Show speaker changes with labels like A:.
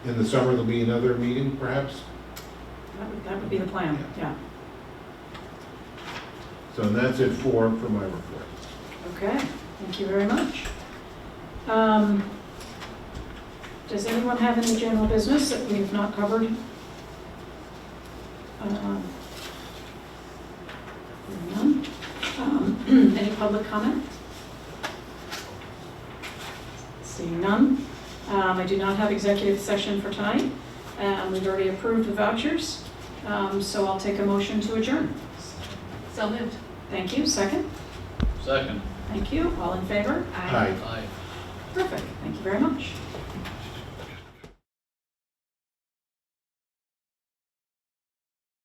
A: In the summer, there'll be another meeting perhaps?
B: That would, that would be the plan, yeah.
A: So that's it for, for my report.
B: Okay, thank you very much. Um, Does anyone have any general business that we've not covered? Um, hearing none. Um, Any public comment? Seeing none. Um, I do not have executive session for tonight. Um, We've already approved the vouchers, Um, so I'll take a motion to adjourn.
C: So moved.
B: Thank you, second.
D: Second.
B: Thank you, all in favor?
A: Aye.
D: Aye.
B: Perfect, thank you very much.